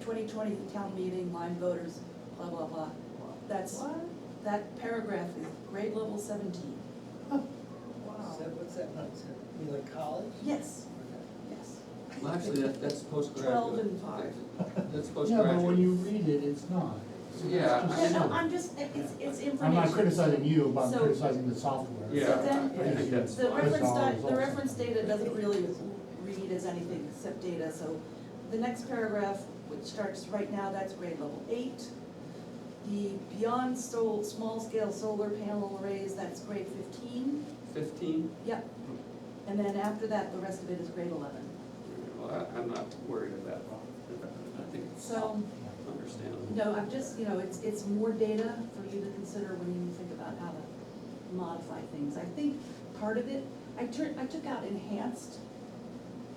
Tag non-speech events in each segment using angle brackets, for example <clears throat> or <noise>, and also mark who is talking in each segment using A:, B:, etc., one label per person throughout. A: twenty twenty, the town meeting, Lyme voters, blah, blah, blah. That's,
B: What?
A: that paragraph is grade level seventeen.
B: Oh, Wow.
C: So what's that, what's that, you mean like college?
A: Yes,
C: Okay.
A: yes.
D: Well, actually, that, that's postgraduate.
A: Twelve and five.
D: That's
E: <laughs> Yeah,
D: postgraduate.
E: but when you read it, it's not. It's
D: Yeah,
E: just
D: I
A: Yeah, no,
E: silly.
A: I'm just, it's, it's information.
E: I'm not criticizing you, but I'm
A: So-
E: criticizing the software.
D: Yeah,
A: So then-
D: I think that's
A: The
D: fine.
A: reference
E: Bizarre
A: data, the
E: results.
A: reference data doesn't really read as anything except data, so the next paragraph, which starts right now, that's grade level eight. The beyond sol, small scale solar panel arrays, that's grade fifteen,
D: Fifteen,
A: yep. And then after that, the rest of it is grade eleven.
D: well, I, I'm not worried about, about it. I think it's
A: So,
D: understandable.
A: no, I'm just, you know, it's, it's more data for you to consider when you think about how to modify things. I think part of it, I turned, I took out enhanced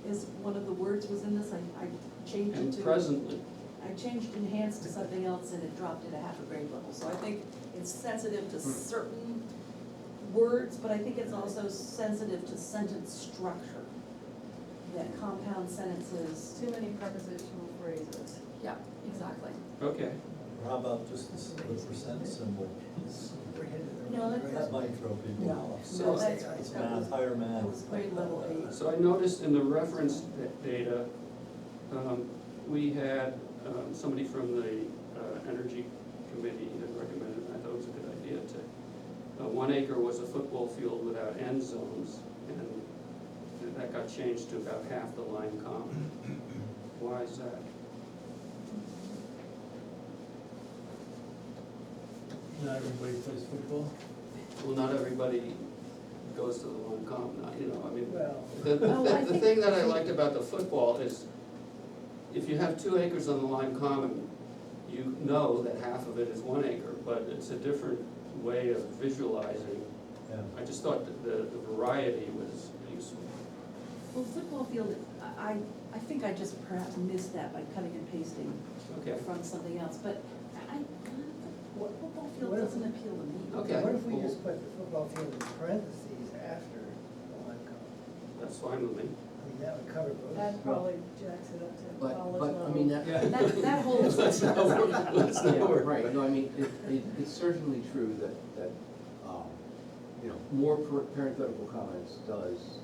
A: is one of the words was in this, I, I changed it to.
D: And presently,
A: I changed enhanced to something else and it dropped it a half a grade level. So I think it's sensitive to certain words, but I think it's also sensitive to sentence structure. That compound sentences.
B: Too many prepositional phrases.
A: Yeah, exactly.
D: okay,
F: Or How about just the the percent symbol?
C: We're headed in the
A: No,
C: right
A: that's-
F: That
G: uh,
F: might throw people
A: No,
F: off.
D: So-
A: no, that's,
F: It's
A: that was,
F: math, higher math.
A: that was grade level eight.
D: so I noticed in the reference da- data, um, we had, um, somebody from the, uh, energy committee had recommended, and I thought it was a good idea to, uh, one acre was a football field without end zones, and that got changed to about half the line common. Why is that?
H: Not everybody plays football.
D: Well, not everybody goes to the one comp, not, you know, I mean,
C: Well,
D: the,
A: Oh, I
D: the, the
A: think-
D: thing that I liked about the football is, if you have two acres on the Lime Common, you know that half of it is one acre, but it's a different way of visualizing.
F: Yeah.
D: I just thought that the, the variety was useful.
A: Well, football field, I, I- I think I just perhaps missed that by cutting and pasting
D: Okay,
A: from something else, but I, I-
C: What-
A: football field
C: what if-
A: doesn't appeal to me.
D: Okay.
C: what if we
D: well-
C: just put the football field in parentheses after the line comment?
D: that's fine with me.
C: I mean, that would cover both.
B: That probably jacks it up to
G: But,
B: college
G: but, I mean,
B: level.
G: that.
A: That, that
G: <laughs>
A: whole.
D: Let's not, wor- let's not
G: Yeah,
D: worry.
G: Right, no, I mean, it, it, it's certainly true that, that, um, you know, more par- parenthetical comments does,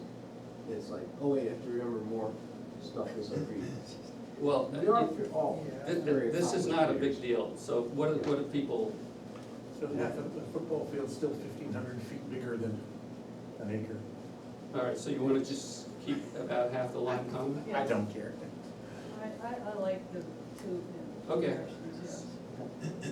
G: it's like, oh wait, I have to remember more stuff as
D: <laughs>
G: I read.
D: Well, uh,
G: You're
D: it-
G: up to all.
C: Yeah.
D: thi- thi- this is not a big deal, so what, do- what do people,
H: So half of the football field's still fifteen hundred feet bigger than an acre.
D: all right, so you wanna just keep about half the Lime Common?
H: I don't care.
B: I, I, I like the two. yeah,
D: Okay.
B: directions, yes.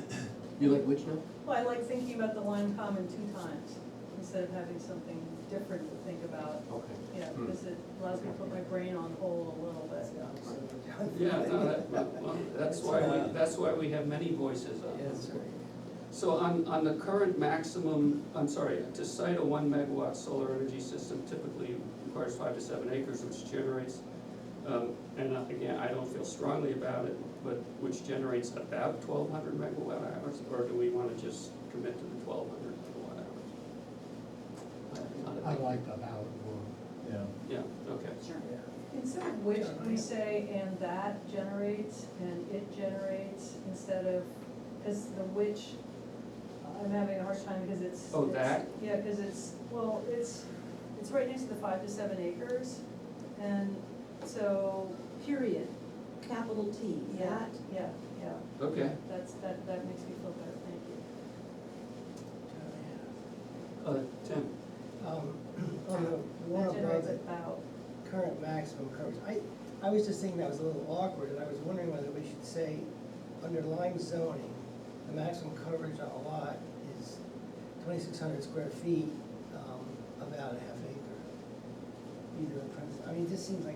G: You like which now?
B: Well, I like thinking about the line common two times, instead of having something different to think about,
G: Okay.
B: you know,
H: Hmm.
B: because it allows me to put my brain on hold a little bit.
D: Yeah, no, that, well, that's why, we that's why we have many voices on
C: Yeah,
D: this.
C: that's right.
D: So on, on the current maximum, I'm sorry, to site a one megawatt solar energy system typically requires five to seven acres, which generates, um, and uh, again, I don't feel strongly about it, but which generates about twelve hundred megawatt hours, or do we wanna just commit to the twelve hundred megawatt hours? I- not a
E: I
D: big-
E: like the how it works.
F: Yeah.
D: Yeah, okay,
A: Sure.
B: Instead of which, we say and that generates and it generates instead of, because the which, I'm having a hard time because it's.
D: Oh,
B: it's-
D: that?
B: Yeah, because it's, well, it's, it's right next to the five to seven acres, and so,
A: Period, capital T,
B: yeah,
A: that,
B: yeah, yeah,
D: okay.
B: that's, that, that makes me feel better, thank you.
D: Uh, Tim?
C: Um, <clears throat> On the one
B: That
C: about
B: generates
C: the
B: about,
C: current maximum coverage, I, I was just thinking that was a little awkward, and I was wondering whether we should say, under Lyme zoning, the maximum coverage on a lot is twenty-six hundred square feet, um, about a half acre. Either in parentheses, I mean, it just seems like,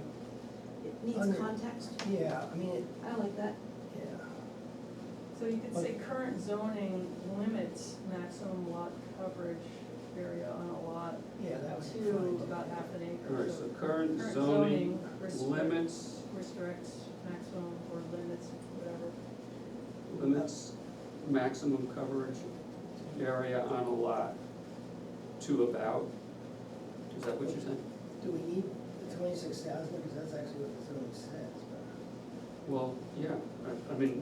A: it needs
C: Under-
A: context,
C: yeah, I mean, it,
A: I like that.
C: yeah,
B: so you could say current zoning limits maximum lot coverage area on a lot
C: yeah, that was.
B: to about half an acre.
D: All right, so current
B: Current
D: zoning
B: zoning restrict-
D: limits
B: restricts maximum or limits whatever.
D: limits maximum coverage area on a lot to about, is that what you're saying?
C: Do we need the twenty-six thousand, because that's actually what the zoning says, but.
D: well, yeah, I, I mean,